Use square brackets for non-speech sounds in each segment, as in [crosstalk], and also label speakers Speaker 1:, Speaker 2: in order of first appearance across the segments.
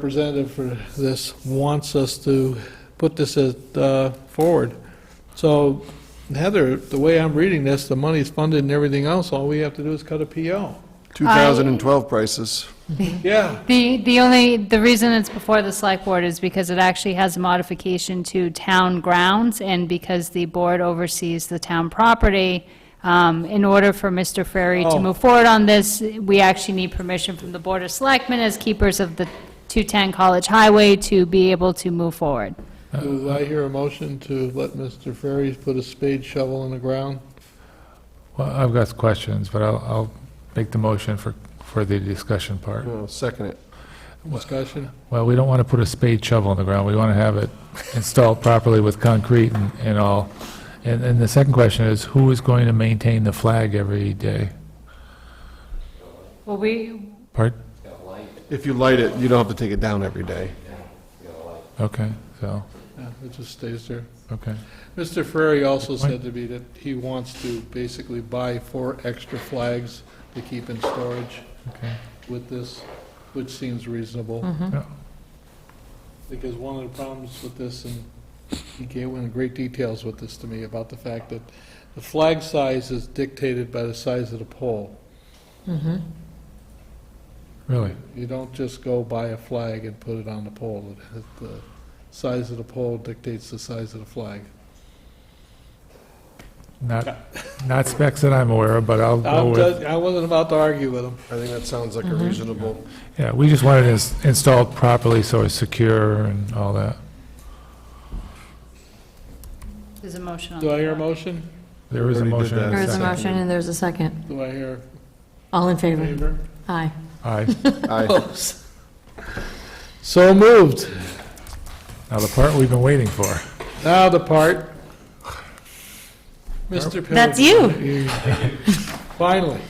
Speaker 1: representative for this wants us to put this as, uh, forward. So Heather, the way I'm reading this, the money's funded and everything else, all we have to do is cut a PO.
Speaker 2: 2012 prices.
Speaker 1: Yeah,
Speaker 3: The, the only, the reason it's before the select board is because it actually has a modification to town grounds, and because the board oversees the town property. Um, In order for Mr. Ferry
Speaker 1: Oh.
Speaker 3: to move forward on this, we actually need permission from the Board of Selectmen as keepers of the 210 College Highway to be able to move forward.
Speaker 1: do I hear a motion to let Mr. Ferry put a spade shovel in the ground?
Speaker 4: Well, I've got questions, but I'll, I'll make the motion for, for the discussion part.
Speaker 2: Well, second it.
Speaker 1: Discussion?
Speaker 4: Well, we don't want to put a spade shovel in the ground. We want to have it installed properly with concrete and, and all. And, and the second question is, who is going to maintain the flag every day?
Speaker 3: Well, we,
Speaker 4: Part,
Speaker 2: If you light it, you don't have to take it down every day.
Speaker 4: okay, so,
Speaker 1: Yeah, it just stays there.
Speaker 4: okay.
Speaker 1: Mr. Ferry also said to me that he wants to basically buy four extra flags to keep in storage
Speaker 4: Okay.
Speaker 1: with this, which seems reasonable.
Speaker 5: Hmm?
Speaker 4: Yeah.
Speaker 1: Because one of the problems with this, and he gave went into great details with this to me, about the fact that the flag size is dictated by the size of the pole.
Speaker 4: Really?
Speaker 1: You don't just go buy a flag and put it on the pole. It- The size of the pole dictates the size of the flag.
Speaker 4: Not, not specs that I'm aware of, but I'll go
Speaker 1: I'm
Speaker 4: with,
Speaker 1: just- I wasn't about to argue with him.
Speaker 2: I think that sounds like a reasonable.
Speaker 4: yeah, we just want it ins- installed properly so it's secure and all that.
Speaker 3: there's a motion on the
Speaker 1: Do I hear a
Speaker 3: floor.
Speaker 1: motion?
Speaker 4: There is a
Speaker 2: Already did
Speaker 4: motion.
Speaker 2: that.
Speaker 4: and
Speaker 5: There is a
Speaker 4: second.
Speaker 5: motion and there's a second.
Speaker 1: Do I hear
Speaker 5: All in
Speaker 1: a
Speaker 4: [laughs]
Speaker 5: favor?
Speaker 1: favor?
Speaker 5: Aye.
Speaker 4: Aye.
Speaker 2: Aye.
Speaker 1: So moved.
Speaker 4: Now, the part we've been waiting for.
Speaker 1: Now the part. Mr. Pilgrim.
Speaker 5: That's you.
Speaker 1: Finally.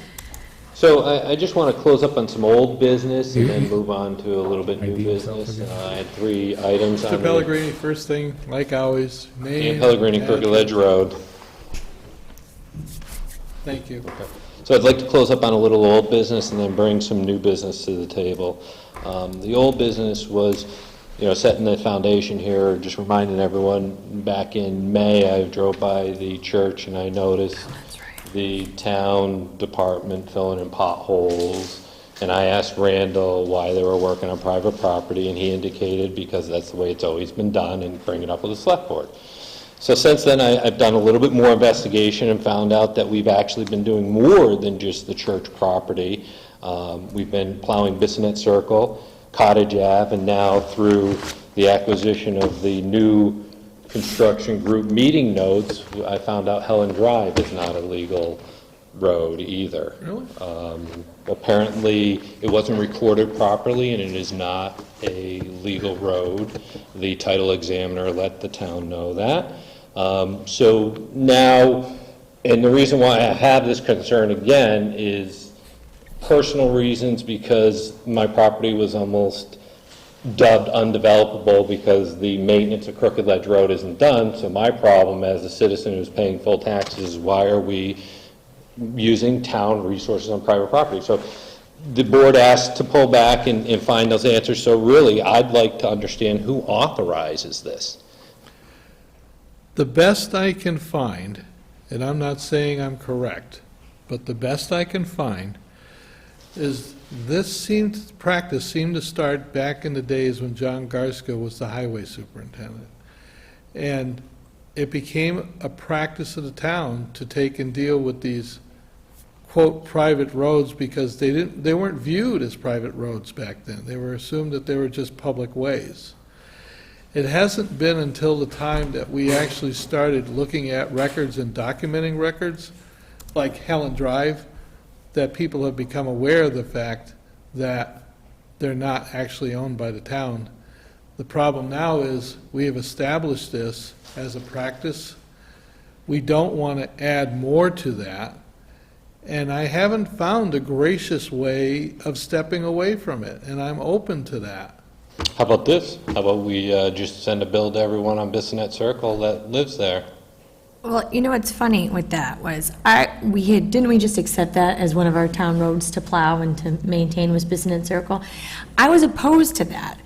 Speaker 6: So I, I just want to close up on some old business and then
Speaker 4: You-
Speaker 6: move on to a little bit new
Speaker 4: ID yourself
Speaker 6: business.
Speaker 4: again.
Speaker 6: Uh, I had three items on
Speaker 1: Mr.
Speaker 6: the
Speaker 1: Pellegrini, first thing, like always, name.
Speaker 6: Dan Pellegrini, Crooked Ledge Road.
Speaker 1: Thank you.
Speaker 6: So I'd like to close up on a little old business and then bring some new business to the table. Um, The old business was, you know, setting the foundation here, just reminding everyone, back in May, I drove by the church and I noticed
Speaker 5: Oh, That's right.
Speaker 6: the town department filling in potholes, and I asked Randall why they were working on private property, and he indicated because that's the way it's always been done, and bring it up with the select board. So since then, I, I've done a little bit more investigation and found out that we've actually been doing more than just the church property. Um, We've been plowing Bissonnet Circle, Cottage Ave, and now through the acquisition of the new construction group meeting notes, I found out Helen Drive is not a legal road either.
Speaker 1: Really?
Speaker 6: Um, Apparently, it wasn't recorded properly, and it is not a legal road. The title examiner let the town know that. Um, So now, and the reason why I have this concern again is personal reasons, because my property was almost dubbed undevelopable because the maintenance of Crooked Ledge Road isn't done, so my problem as a citizen who's paying full taxes is why are we using town resources on private property? So the board asked to pull back and, and find those answers, so really, I'd like to understand who authorizes this.
Speaker 1: The best I can find, and I'm not saying I'm correct, but the best I can find is this seemed, practice seemed to start back in the days when John Garsko was the highway superintendent. And it became a practice of the town to take and deal with these quote, private roads because they didn't, they weren't viewed as private roads back then. They were assumed that they were just public ways. It hasn't been until the time that we actually started looking at records and documenting records, like Helen Drive, that people have become aware of the fact that they're not actually owned by the town. The problem now is, we have established this as a practice. We don't want to add more to that, and I haven't found a gracious way of stepping away from it, and I'm open to that.
Speaker 6: How about this? How about we, uh, just send a bill to everyone on Bissonnet Circle that lives there?
Speaker 5: Well, you know what's funny with that was, I, we had, didn't we just accept that as one of our town roads to plow and to maintain was Bissonnet Circle? I was opposed to that,